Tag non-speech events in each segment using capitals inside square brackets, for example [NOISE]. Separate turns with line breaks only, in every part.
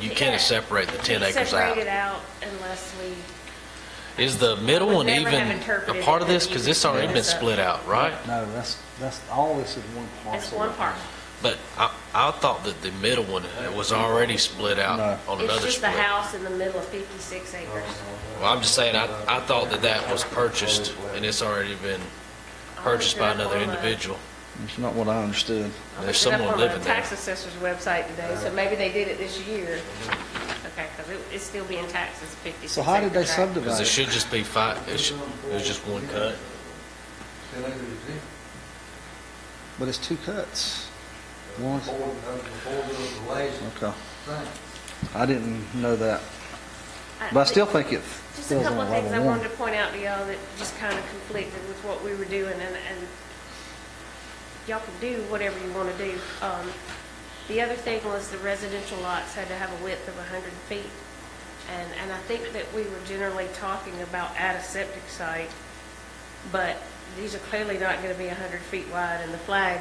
you can't separate the 10 acres
Separate it
out.
out unless we,
Is the middle
would
one
never have
even a
interpreted
part
it
of this?
that
Because
you
it's already been
messed up.
split out, right?
No, that's, that's, all this is one parcel.
it's one part.
But I, I thought that the middle one was already split
No.
out on
It's
another
just the
split.
house in the middle of
Oh,
56 acres.
Well, I'm just saying, I, I thought that that was purchased and it's already been purchased by another individual.
It's not what I understood.
There's someone living there.
I looked it up on the tax assessor's website today, so maybe they did it this year. Okay, because it's still being taxed as a 56 acre
So how did they
tract.
subdivide
Because it
it?
should just be five, it should, it was just one cut.
But it's two cuts. One, okay. I didn't know that,
I-
but I still think it
Just a
feels on
couple of things I
level one.
wanted to point out to y'all that just kind of conflicted with what we were doing, and, and y'all can do whatever you want to do. Um, The other thing was the residential lots had to have a width of 100 feet, and, and I think that we were generally talking about at a septic site, but these are clearly not going to be 100 feet wide in the flag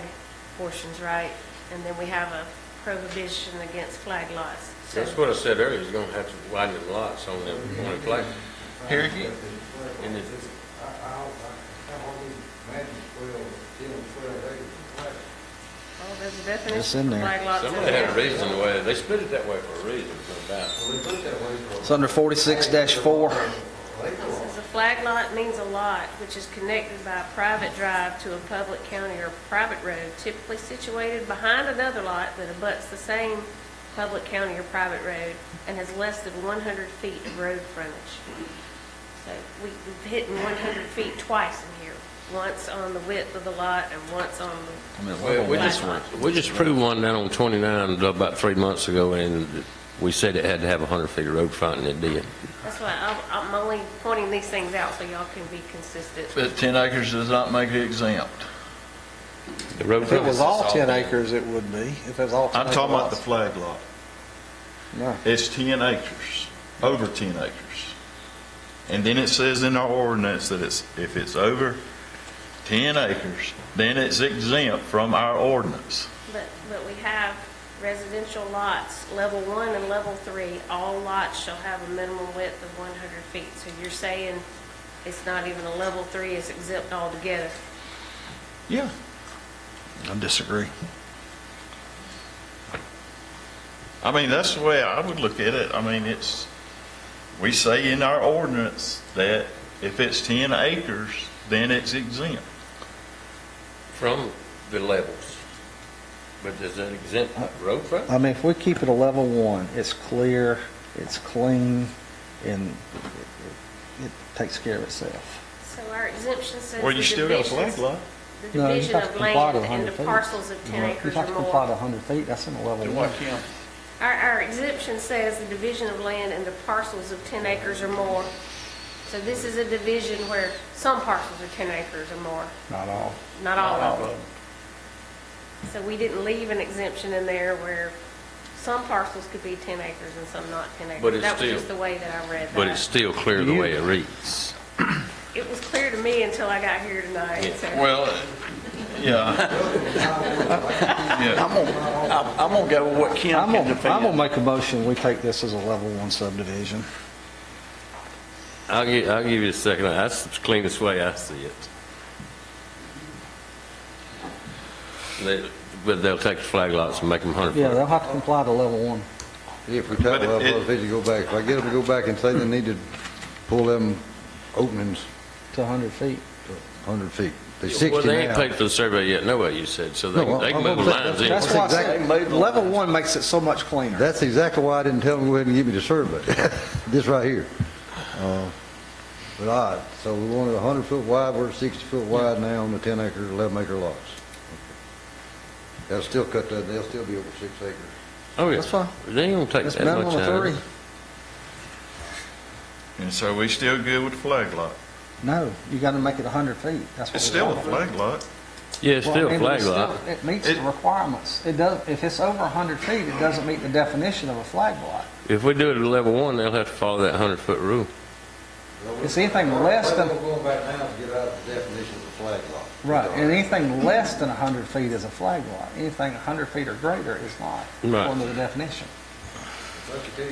portions, right? And then we have a prohibition against flag lots. So
That's what I said earlier, you're gonna have to widen the lots on the, on the flag.
Here again.
And it-
Well, there's a definition
It's in
for
there.
flag lots. in
Somebody had a
there.
reason the way, they split it that way for a reason, no doubt.
It's under forty-six four.
Says a flag lot means a lot which is connected by a private drive to a public county or private road typically situated behind another lot that abuts the same public county or private road and has less than 100 feet of road frontage. So we- we've hit 100 feet twice in here, once on the width of the lot and once on
I mean,
Well,
level
we
one.
just, we just proved one down on 29 about three months ago, and we said it had to have 100 feet of road front, and it did.
the, that's why I'm- I'm only pointing these things out so y'all can be consistent.
But 10 acres does not make it exempt.
The road
If it
front
was
is
all ten
bad.
acres, it would be, if it was all ten
I'm
acre
talking about the
lots.
flag lot.
No.
It's 10 acres, over 10 acres. And then it says in our ordinance that it's, if it's over 10 acres, then it's exempt from our ordinance.
But, but we have residential lots, level one and level three, all lots shall have a minimum width of 100 feet. So you're saying it's not even a level three, it's exempt altogether.
Yeah.
I disagree.
I mean, that's the way I would look at it. I mean, it's, we say in our ordinance that if it's 10 acres, then it's exempt.
From the levels. But does that exempt road front?
I mean, if we keep it a level one, it's clear, it's clean, and it- it it takes care of itself.
So our exemption says
Well, you
the
still got a flag
divisions,
lot.
the
No, you
division
have to
of
comply to
land
100
into
feet.
parcels of 10
You
acres
have
or
to comply to
more.
100 feet, that's in a level one.
Our, our exemption says the division of land into parcels of 10 acres or more. So this is a division where some parcels are 10 acres or more.
Not all.
Not all of them. So we didn't leave an exemption in there where some parcels could be 10 acres and some not 10 acres.
But it's
That was
still-
just the way that I read that.
But it's still clear the way it reads.
It was clear to me until I got here tonight, so.
Well, yeah. Yeah.
I'm gonna go with what Kim
I'm
can
gonna, I'm gonna
defend.
make a motion, we take this as a level one subdivision.
I'll give, I'll give you a second. That's the cleanest way I see it. They- But they'll take the flag lots and make them 100 foot.
Yeah, they'll have to comply to level one.
If we tighten
But
up,
it-
I'll say to go back. If I get them to go back and say they need to pull them openings
to 100 feet.
100 feet, they're
Well,
60
they ain't
now.
paid for the survey yet, no way, you said, so they
No,
they can
I'm-
move the lines in.
That's why I
Exactly.
said, level one makes it so much cleaner.
That's exactly why I didn't tell them to go ahead and give me the survey, [LAUGHS] this right here. Uh, But I, so we wanted 100 foot wide, we're 60 foot wide now on the 10 acre, 11 acre lots. They'll still cut that, they'll still be over six acres.
Oh, yeah.
That's fine.
They ain't gonna take
It's
that much uh,
minimum of
out.
three.
of it.
And so we still good with the flag lot.
No, you gotta make it 100 feet, that's what.
It's
we
still a
want.
flag lot.
Yeah, it's
Well,
still
I
a
mean,
flag
it's
lot.
still- It meets the
It-
requirements. It does, if it's over 100 feet, it doesn't meet the definition of a flag lot.
If we do it at level one, they'll have to follow that 100-foot rule.
It's anything less than-
We're going back now to get out of the definition of a flag lot.
Right, and anything less than 100 feet is a flag lot. Anything 100 feet or greater is not,
Right.
according to the definition.
Lucky too.